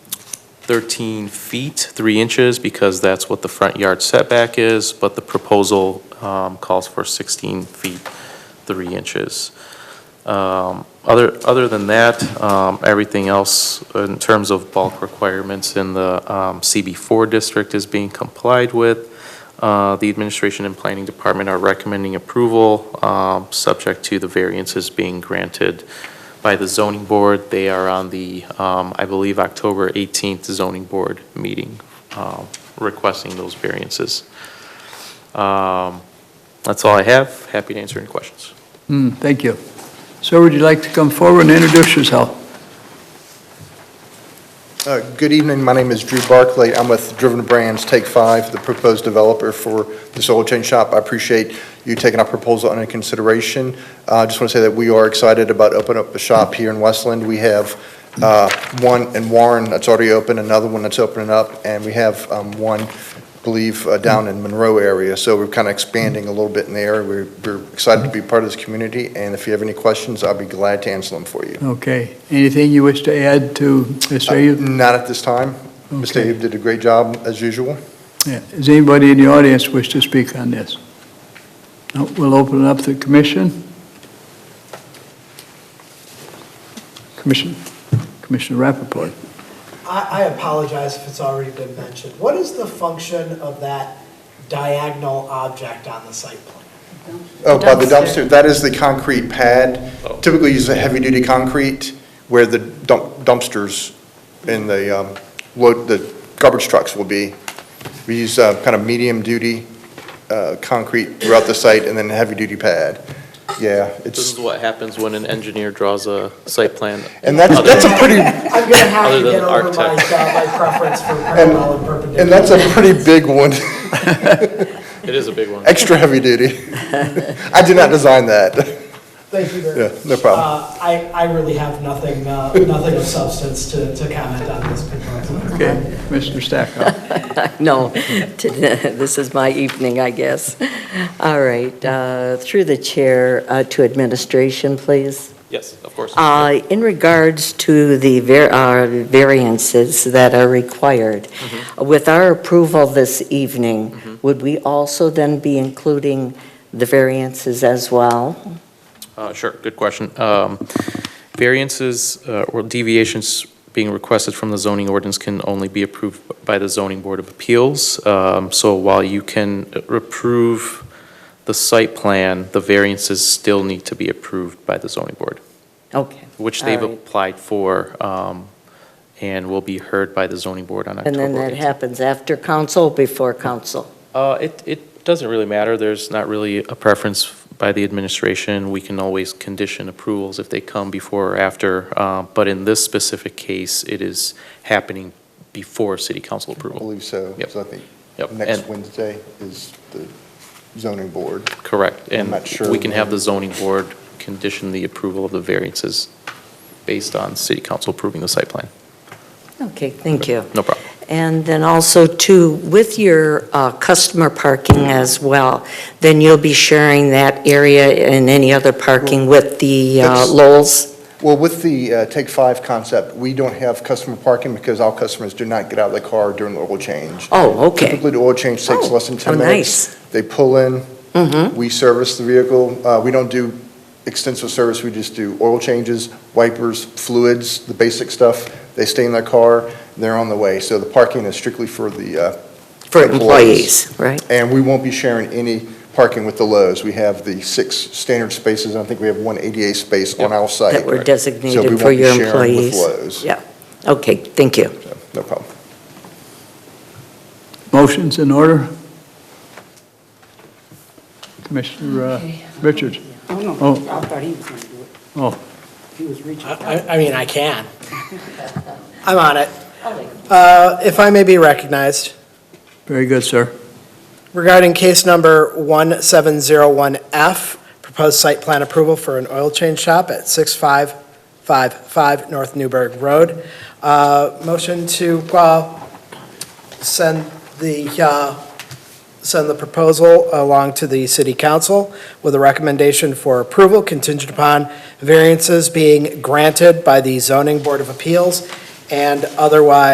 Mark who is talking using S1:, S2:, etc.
S1: 13 feet, 3 inches, because that's what the front yard setback is, but the proposal um, calls for 16 feet, 3 inches. Um, Other, other than that, um, everything else in terms of bulk requirements in the um, CB4 district is being complied with. Uh, The administration and planning department are recommending approval, um, subject to the variances being granted by the zoning board. They are on the, um, I believe, October 18th zoning board meeting, um, requesting those variances. Um, That's all I have. Happy to answer any questions.
S2: Hmm, Thank you. Sir, would you like to come forward and introduce yourself?
S3: Uh, Good evening, my name is Drew Barclay, I'm with Driven Brands Take Five, the proposed developer for this oil change shop. I appreciate you taking our proposal under consideration. Uh, I just want to say that we are excited about opening up the shop here in Westland. We have uh, one in Warren that's already open, another one that's opening up, and we have um, one, I believe, uh, down in Monroe area, so we're kind of expanding a little bit in the area. We're- We're excited to be part of this community, and if you have any questions, I'll be glad to answer them for you.
S2: Okay. Anything you wish to add to Mr. Ayub?
S3: Uh, Not at this time. Mr.
S2: Okay.
S3: Abe did a great job, as usual.
S2: Yeah. Does anybody in the audience wish to speak on this? No, We'll open it up to the commission. Commission, Commissioner Rappaport.
S4: I, I apologize if it's already been mentioned. What is the function of that diagonal object on the site plan?
S3: Oh, by the dumpster, that is the concrete pad. Typically use a heavy-duty concrete where the dump dumpsters and the, um, load, the garbage trucks will be. We use uh, kind of medium-duty uh, concrete throughout the site and then a heavy-duty pad. Yeah,
S1: This is
S3: it's,
S1: what happens when an engineer draws a site plan.
S3: and that's, that's a pretty,
S4: I'm gonna have
S1: Other
S4: to
S1: than
S4: get over my,
S1: architect.
S4: uh, my preference for parallel and perpendicular.
S3: and that's a pretty big one,
S1: It is a big one.
S3: extra heavy-duty. I did not design that.
S4: Thank you very
S3: Yeah,
S4: much.
S3: no problem.
S4: Uh, I, I really have nothing, uh, nothing of substance to, to comment on this proposal.
S2: Okay, Mr. Stackhouse.
S5: No, to- this is my evening, I guess. All right, uh, through the chair uh, to administration, please.
S1: Yes, of course.
S5: Uh, In regards to the var- uh, variances that are required, with our approval this evening, would we also then be including the variances as well?
S1: Uh, Sure, good question. Um, Variances uh, or deviations being requested from the zoning ordinance can only be approved by the zoning board of appeals. Um, So while you can approve the site plan, the variances still need to be approved by the zoning board,
S5: Okay.
S1: which they've
S5: All right.
S1: applied for um, and will be heard by the zoning board on
S5: And
S1: October
S5: then that
S1: 18th.
S5: happens after council, before council?
S1: Uh, It, it doesn't really matter. There's not really a preference by the administration. We can always condition approvals if they come before or after. uh, But in this specific case, it is happening before city council
S3: I
S1: approval.
S3: believe so.
S1: Yep.
S3: So I think
S1: Yep,
S3: next
S1: and-
S3: Wednesday is the zoning board.
S1: Correct.
S3: I'm
S1: And
S3: not sure
S1: we can have
S3: when.
S1: the zoning board condition the approval of the variances based on city council approving the site plan.
S5: Okay, thank you.
S1: No problem.
S5: And then also too, with your uh, customer parking as well, then you'll be sharing that area and any other parking with the uh,
S3: That's-
S5: Lowells?
S3: Well, with the uh, Take Five concept, we don't have customer parking because all customers do not get out of the car during the oil change.
S5: Oh, okay.
S3: Typically, the oil change takes
S5: Oh,
S3: less than 10
S5: oh,
S3: minutes. They pull in,
S5: Mhm.
S3: we service the vehicle. Uh, We don't do extensive service, we just do oil changes, wipers, fluids, the basic stuff. They stay in their car, they're on the way. So the parking is strictly for the, uh,
S5: For
S3: Employees.
S5: employees, right?
S3: and we won't be sharing any parking with the Lowe's. We have the six standard spaces, and I think we have one ADA space on our site.
S5: That were
S3: So we
S5: designated
S3: won't
S5: for
S3: be
S5: your
S3: sharing with
S5: employees?
S3: Lowe's.
S5: Yeah, okay, thank you.
S3: So, No problem.
S2: Motion's in order? Commissioner uh, Richards.
S6: Oh, no,
S2: Oh.
S6: I thought he was going to do it.
S2: Oh.
S6: He was reaching.
S4: I, I- I mean, I can. I'm on it. Uh, if I may be recognized.
S2: Very good, sir.
S4: Regarding case number 1701F, proposed site plan approval for an oil change shop at 6555 North Newburgh Road. Uh, Motion to uh, send the, uh, send the proposal along to the city council with a recommendation for approval contingent upon variances being granted by the zoning board of appeals and otherwise